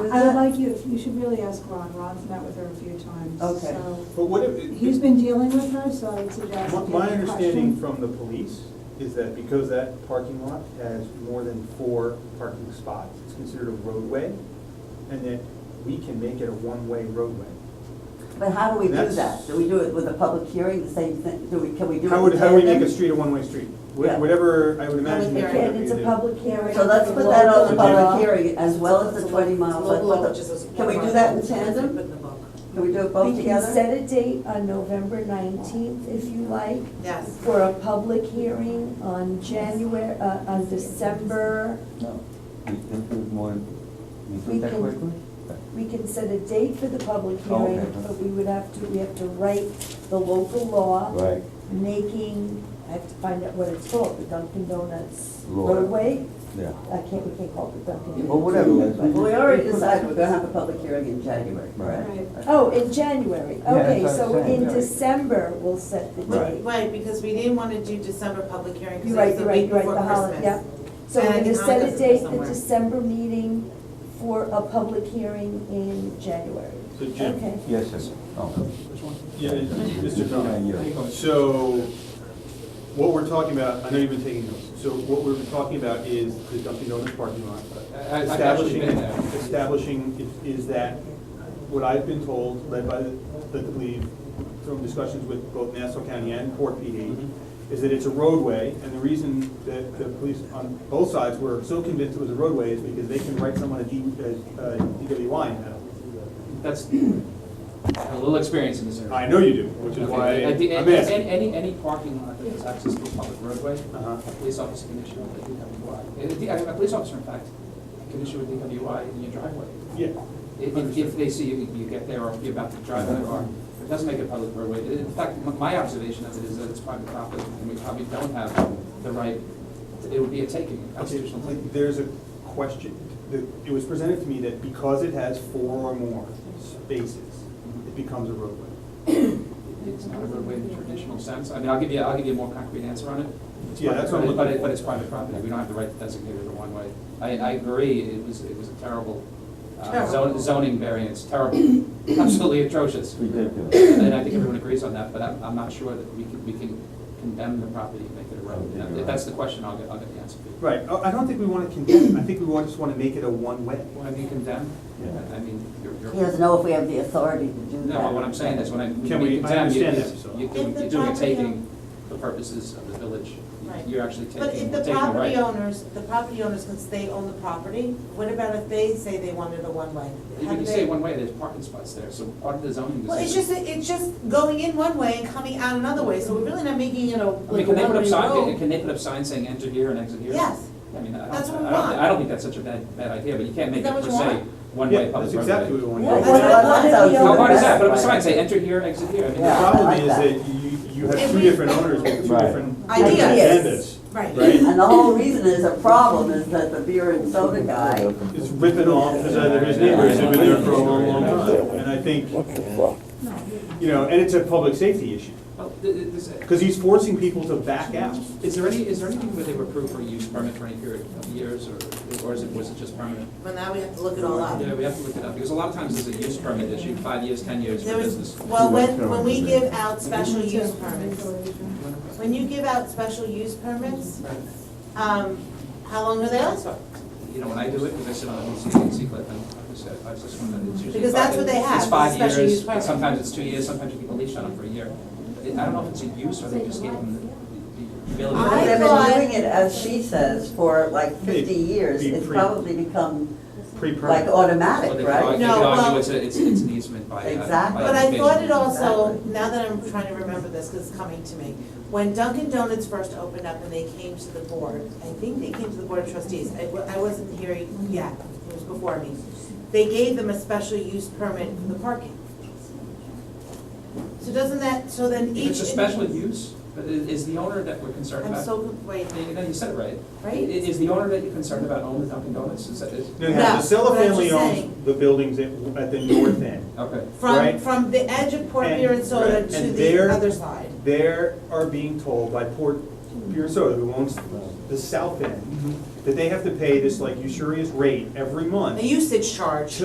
with I would it? like you, you should really ask Ron, Ron's met with her a few times, Okay. so. But what if, He's been dealing with her, so I would suggest. my- if you my have a understanding question- from the police is that because that parking lot has more than four parking spots, it's considered a roadway, and that we can make it a one-way roadway. But how do we do That's- that? Do we do it with a public hearing, the same thing, do we, can we do it? How would, with how do we tandem? make a street a one-way street? Yeah. Wh- Whatever, I would imagine. Public that's hearing. what And it's a we do. public hearing. So let's put that on the public hearing as well as It's the a twenty lo- mile. it's a let's local law, put which the- is a- Can we do that in It's in tandem? the book. Can we do it both We can together? set a date on November nineteenth, if you like, Yes. for a public hearing on January, uh, on December. No, we think we want, we We think that can- quickly? We can set a date for the public Oh, okay. hearing, but we would have to, we have to write the local law. Right, Making, I have to find out what it's called, the Dunkin' Donuts Law. roadway? yeah. I can't, we can't call it the Dunkin'. Well, whatever, Donuts, that's- Well, but- we already decided we're gonna have a public hearing in January, correct? Right. Oh, in January, Yeah, that's okay, what I'm so saying. in December, we'll set the Right. date. Right, because we didn't want to do December public hearing You're because right, it was you're the right, week you're right, before the holiday, yeah. Christmas. So And I we're gonna think set a Hanukkah's in date, the somewhere. December meeting for a public hearing in January. So Jim- Okay. Yes, yes, oh. Yeah, Mr. Yeah, Drummond, so what we're talking about, I know you've been taking notes, so what we're talking about is the Dunkin' Donuts parking lot. Establishing, establishing, i- is that, what I've been told, led by, the I believe, from discussions with both Nassau County and Port PD, is that it's a roadway, and the reason that the police on both sides were so convinced it was a roadway is because they can write someone a D, a a DWI now. That's a little experience in this area. I know you do, which is Okay, why at the- I'm a- asking. a- Any, any parking lot that is access to a public roadway, Uh-huh. a police officer can issue a DWI. A D- A, a police officer, in fact, can issue a DWI in your driveway. Yeah. If- If, if they see you, you get there or you're about to drive there Uh-huh. or, it doesn't make it public roadway. I- In fact, m- my observation of it is that it's private property and we probably don't have the right, it would be a taking, a Okay, constitutional taking. There's a question, The- it was presented to me that because it has four or more spaces, it becomes a roadway. It's not a roadway in the traditional sense. I mean, I'll give you, I'll give you a more concrete answer on it. It's Yeah, private that's what I'm property, But looking it, but for. it's private property. We don't have the right to designate it a one-way. I, I agree, it was, it was a terrible uh, zon- Terrible. zoning variance, terrible, absolutely atrocious. Ridiculous. And I think everyone agrees on that, but I'm, I'm not sure that we can, we can condemn the property and make it a road. I think you're If that's right. the question, I'll get, I'll get the answer for you. Right, Oh, I I don't think we want to condemn, I think we want- just want to make it a one-way. Well, I mean, condemn, Yeah. I mean, you're, He you're, doesn't know if we have the authority to do that. no, what I'm saying is when I, when Can you we- I condemn, you- understand that, so. you- If the you're doing a property taking for purposes of the village. Right. You're actually taking, But taking if a right. the property owners, the property owners, since they own the property, what about if they say they wanted a one-way? How Even do you say they- one way, there's parking spots there, so part of the zoning decision. Well, it's just, it's just going in one way and coming out another way, so we're really not making it a, I mean, like a can they put one-way up sign, road. can they put up signs saying enter here and exit here? Yes. I mean, I That's what don't, we I don't, want. I don't think that's such a bad, bad idea, but you can't make Is it that per what you se, want? one Yeah, way public that's roadway. exactly what we want. Yeah, That's what I that want. sounds How hard is good. that, put up a Right. sign, say enter here, exit here, I mean, Yeah. The I problem like is that. that you, you have And two we- different owners with two Right. different Ideas. agendas. Right. And the whole reason is a problem is that the beer and soda guy, It's ripping off his other, his neighbors who've been there for a long, long time. And I think, you know, and it's a public safety issue, Well, th- th- this- because he's forcing people to back out. Is there any, is there anything where they were approved for a use permit for any period of years, or, or is it, was it just permanent? Well, now we have to look it all up. Yeah, we have to look it up, because a lot of times there's a use permit issue, five years, ten years There for was- business. well, when, when we give out special use permits, Regulation. when you give out special use permits, um, how long are they out for? you know, when I do it, because I sit on the CCC clip, and I just, I just want to, it's usually. Because that's what they five- have, It's five special use years, permit. sometimes it's two years, sometimes you people leash on them for a year. I I don't know if it's a use or they just gave them the- the I because they've ability. thought- been doing it, as she says, for like fifty years. Be- be It's pre- probably become like Pre-permit. Well, they automatic, could argue- right? they could No, argue well- it's a, it's, it's an easement by. uh, by Exactly. But I thought it occupation. also, Exactly. now that I'm trying to remember this, because it's coming to me, when Dunkin' Donuts first opened up and they came to the board, I think they came to the board of trustees, I, wa- I wasn't here yet, it was before me. They gave them a special use permit for the parking. So doesn't that, so then If each. it's a special use, but i- is the owner that we're concerned I'm about? so, wait, You know, you said it right. Right? I- Is the owner that you're concerned about own the Dunkin' Donuts? Is that, is, No, No, no, the Sella but I'm family just saying- owns the buildings at, at the north end. okay. from, Right. from the edge of Port And- Beer and Soda right, to and the there- other side. They are being told by Port Beer and Soda, who owns the south end, that they have to pay this like usurious rate every month. The usage charge.